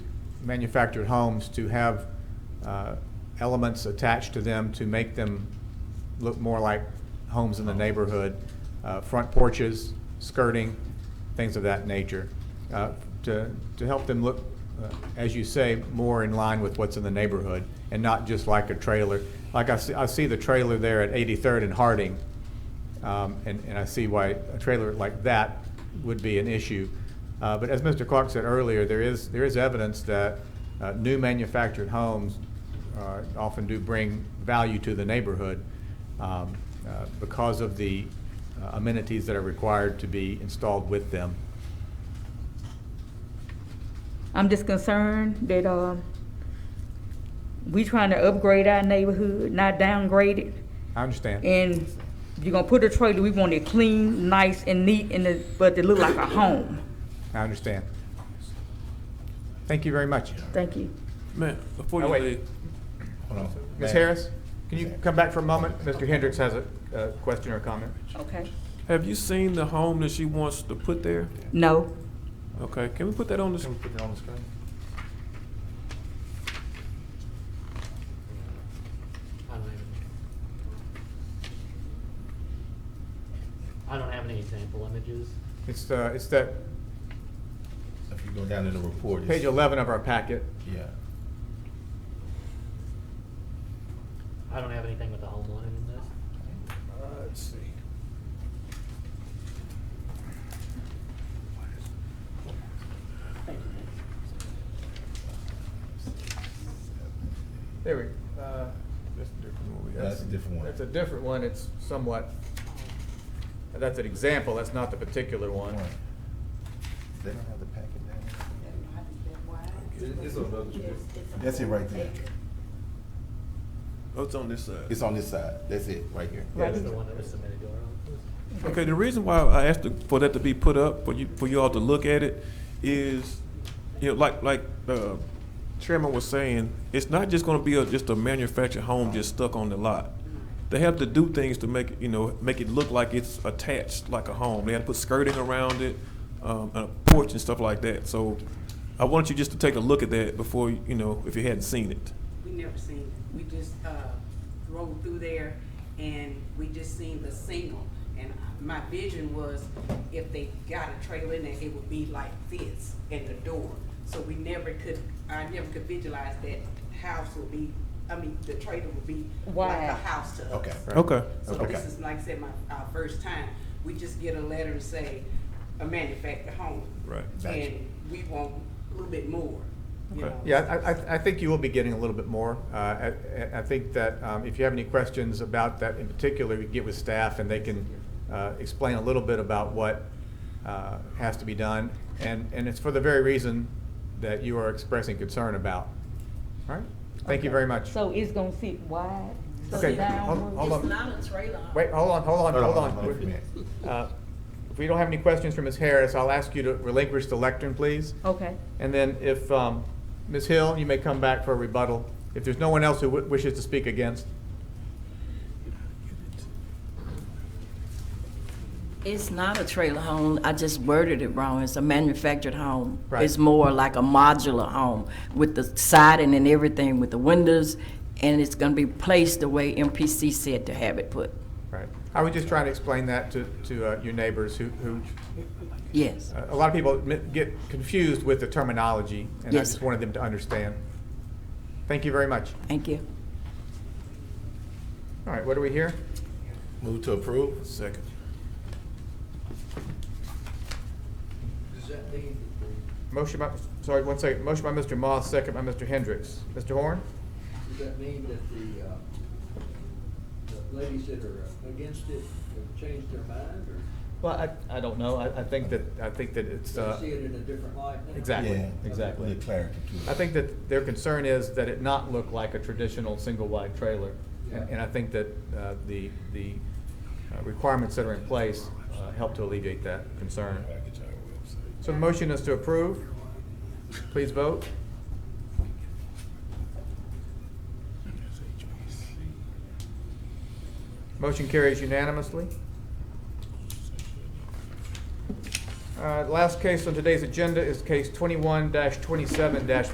manufactured homes to have uh, elements attached to them to make them look more like homes in the neighborhood, uh, front porches, skirting, things of that nature, uh, to, to help them look, uh, as you say, more in line with what's in the neighborhood and not just like a trailer. Like I see, I see the trailer there at 83rd and Harding, um, and, and I see why a trailer like that would be an issue. Uh, but as Mr. Clark said earlier, there is, there is evidence that uh, new manufactured homes uh, often do bring value to the neighborhood um, uh, because of the uh, amenities that are required to be installed with them. I'm just concerned that, um, we trying to upgrade our neighborhood, not downgrade it. I understand. And you're gonna put a trailer, we want it clean, nice and neat, and it, but it look like a home. I understand. Thank you very much. Thank you. Man, before Oh, you wait. leave, Ms. Harris, can you come back for a moment? Mr. Hendricks has a a question or comment. Okay. have you seen the home that she wants to put there? No, Okay, can we put that on the, Can we put that on the screen? I don't have any. I don't have any example images. It's, uh, it's that If you go down to the report, it's- page 11 of our packet. Yeah. I don't have anything with the home on it in this. Uh, Let's see. There we, uh, that's a different one. we- That's a different one. That's a different one, it's somewhat, that's an example, that's not the particular one. They don't have the packet down there? It's another trip. That's it right there. oh, it's on this side. It's on this side. That's it, right here. That's the one that was submitted to our office. Okay, the reason why I asked to- for that to be put up, for you, for you all to look at it, is, you know, like, like, uh, Chairman was saying, it's not just gonna be a, just a manufactured home just stuck on the lot. They have to do things to make, it, you know, make it look like it's attached like a home. They had to put skirting around it, um, and a porch and stuff like that. So I wanted you just to take a look at that before, you know, if you hadn't seen it. We never seen it. We just, uh, rode through there and we just seen the single. And my vision was if they got a trailer in there, it would be like this and the door. So we never could, I never could visualize that house would be, I mean, the trailer would be like Wide. a house to us. Okay. Okay. So Okay. this is, like I said, my, our first time. We just get a letter and say, a manufactured home. Right. Gotcha. And we want a little bit more, you Okay. know? Yeah, I, I, I think you will be getting a little bit more. Uh, I, I- I think that um, if you have any questions about that in particular, you get with staff and they can uh, explain a little bit about what uh, has to be done. And, and it's for the very reason that you are expressing concern about. All right? Thank you very much. so it's gonna sit wide. Okay, hold- downward? hold on. a trailer. Wait, hold on, hold on, Hold on, hold on. hold on for a minute. Uh, If we don't have any questions for Ms. Harris, I'll ask you to relinquish the lectern, please. Okay, And then if, um, Ms. Hill, you may come back for a rebuttal, if there's no one else who wi- wishes to speak against. It's not a trailer home, I just worded it wrong, it's a manufactured home. Right. It's more like a modular home with the siding and everything, with the windows, and it's gonna be placed the way MPC said to have it put, Right. I was just trying to explain that to, to uh, your neighbors who, who, uh, yes. a lot of people mi- get confused with the terminology, and I Yes. just wanted them to understand. Thank you very much. Thank you. All right, what do we hear? Move to approve? Second. Does that mean that the, Motion by, sorry, one second. Motion by Mr. Moss, second by Mr. Hendricks. Mr. Horn? does that mean that the, uh, the ladies that are against it have changed their mind or Well, I, I don't know. I, I think that, I think that it's, uh, they see it in a different light now? Exactly, Yeah. exactly. Need clarity to it. I think that their concern is that it not look like a traditional single-wide trailer. And Yeah. and I think that uh, the, the uh, requirements that are in place uh, help to alleviate that concern. So the motion is to approve. Please vote. Motion carries unanimously. Uh, Last case on today's agenda is case twenty-one twenty-seven